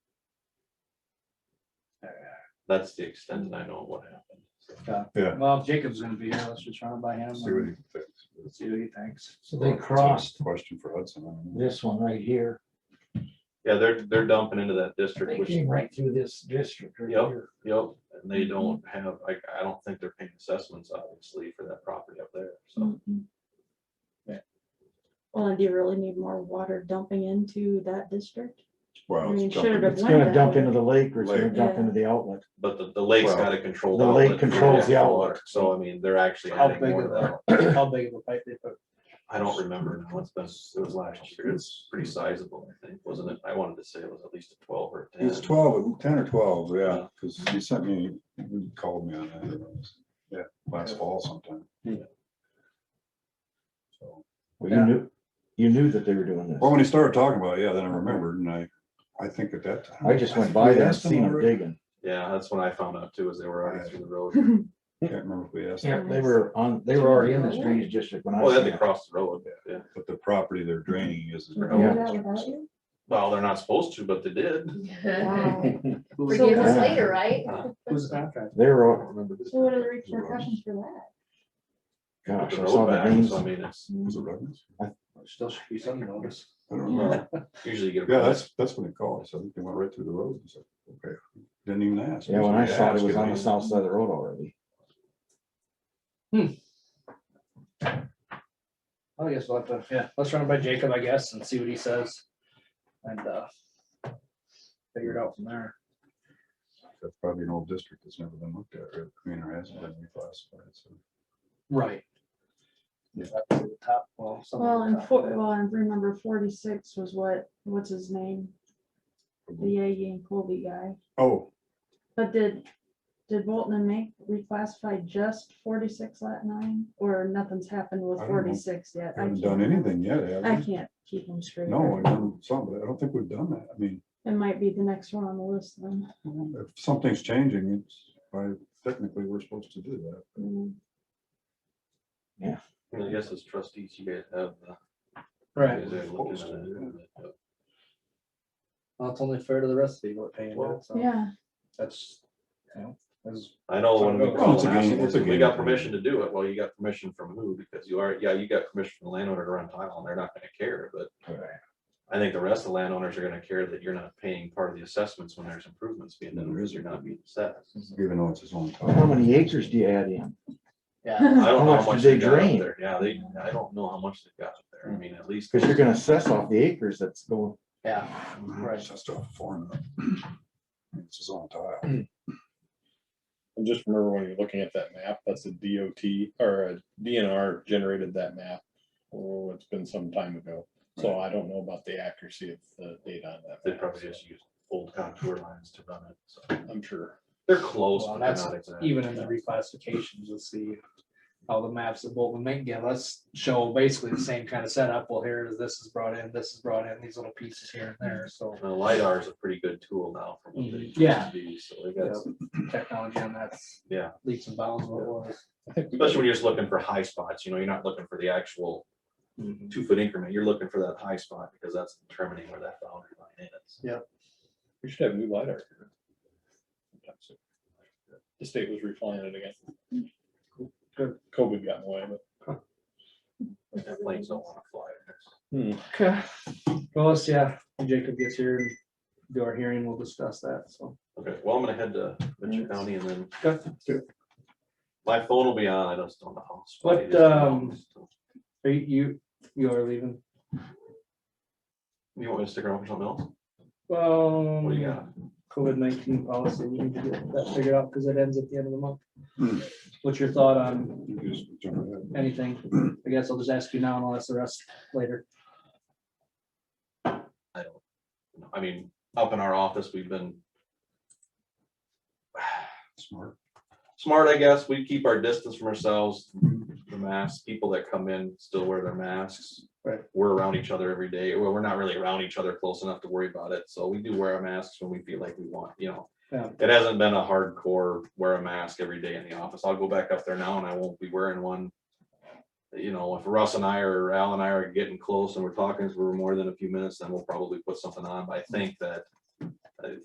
that's the extent that I know of what happened. so. Yeah. Well, Jacob's gonna be here, let's just run it by him, See what he and thinks. see what he thinks. Um, So they It's a crossed Question for Hudson. I don't know. this one right here. Yeah, they're, they're dumping into that district, They which, came right through this district right Yep. here. yep, and they don't have, I, I don't think they're paying assessments, obviously, for that property up there, so. Mhm. Yeah. Well, and do you really need more water dumping into that district? I Wow, mean, it's should jumping. have It's gonna that dump way. into the lake or it's gonna Lake. dump into Yeah. the outlet. But the, the lake's Well, gotta control. the lake outlet for controls the water, outlet. So I mean, they're actually How adding big more to of that. a, how big of a pipe they put? I don't remember now, it's been, it was last year, it's pretty sizable, I think, wasn't it? I wanted to say it was at least a twelve or a ten. It's twelve, ten or twelve, yeah, because you sent me, you called me on that. Yeah, last fall sometime. Yeah. So, Well, you Yeah. knew, you knew that they were doing this. Well, when he started talking about it, yeah, then I remembered and I, I think at that time. I just went by We there and asked him seen them already. digging. Yeah, that's when I found out too, is they were already through the road. Can't remember if we asked, Yeah, him, they were on, they were already in this drainage district when I Oh, was they had to there. cross the road, yeah. but the property they're draining is. Can we do Yeah. that without you? Well, they're not supposed to, but they did. Wow. Who's Forgive the us Yeah. later, right? who's the contractor? They I were, don't all- remember this. So what are the repercussions for that? Put gosh, the I road saw the back, names. so I mean, it's, Was it Ruggish? Still should be some notice. I don't remember. well, usually you get. a Yeah, that's, that's when they called. So I think they went right through the road and said, okay, didn't even ask. Yeah, when I Usually saw it, ask it was if on they- the south side of the road already. I guess we'll have to, uh, yeah, let's run it by Jacob, I guess, and see what he says. And, uh, figure it out from there. That's probably an old district that's never been looked at, right? I mean, or hasn't been reclassified, so. Right. Yeah. Top, well, some. of Well, the and top. four, well, and remember forty-six was what, what's his name? The Yagi and Colby guy. Oh, But did, did Bolton and Mink reclassify just forty-six lat nine? Or nothing's happened with I don't know. forty-six yet? I haven't can't- done anything yet, have I we? can't keep them straight. No, I've done some, but I don't think we've done that. I mean, It might be the next one on the list then. if something's changing, it's, by technically, we're supposed to do that. Mm. I mean, I guess as trustees, you guys have. the- Right, you guys are looking at it, but- well, it's only fair to the rest of the people that pay into it, so. Yeah, That's, you know, that's I know when we Well, called it's a and game- asked, it's a them, we game got plan. permission to do it, well, you got permission from who, because you are, yeah, you got permission from the landowner to run tile, and they're not gonna care, but. I think the rest of the landowners are gonna care that you're not paying part of the assessments when there's improvements being done, because you're not being assessed. Even though it's his own. Well, How many acres do you add in? Yeah. I don't know how much much did they they got up drain? there, yeah, they, I don't know how much they got up there, I mean, at least. Cause you're gonna assess off the acres that's going, Yeah, Right. It's just a foreign. It's his own tile. And just remember when you're looking at that map, that's a DOT or a DNR generated that map. Oh, it's been some time ago, so I don't know about the accuracy of the data on that. They map, probably so just use old contour lines to run it, so I'm sure. they're close, Well, but they're that's not exact. even in the reclassifications, you'll see all the maps that Bolton make give us show basically the same kind of setup. Well, here is, this is brought in, this is brought in, these little pieces here and there, so Now LiDAR is a pretty good tool now for what they Mhm. used Yeah. to be, so they got, technology on that's Yeah. leaps and bounds what it was. I think we especially when you're just looking for high spots, you know, you're not looking for the actual Mm-hmm. two foot increment, you're looking for that high spot because that's determining where that boundary line is. We should have new LiDAR. here. Sometime soon. The state was replying it again. Good. COVID got in the way, but. And planes don't wanna fly. hmm. Okay, well, let's, yeah, when Jacob gets here and do our hearing, we'll discuss that, so. Okay, well, I'm gonna head to Mitchell County and then Okay. my phone will be on, I just don't know. how it's What, plugged in, so- um, Are you, you, you are leaving? You want me to stick around for something else? Well, What do you got? Um, COVID nineteen policy, we need to get that figured out because it ends at the end of the Hmm. month. What's your thought on You just jump ahead. anything? I guess I'll just ask you now and I'll ask the rest later. I don't, know. I mean, up in our office, we've been Smart. smart, I guess. We keep our distance from ourselves, the masks, people that come in still wear their masks. Right. We're around each other every day. Well, we're not really around each other close enough to worry about it. So we do wear our masks when we feel like we want, you know. Yeah. It hasn't been a hardcore wear a mask every day in the office. I'll go back up there now and I won't be wearing one. You know, if Russ and I or Al and I are getting close and we're talking for more than a few minutes, then we'll probably put something on. But I think that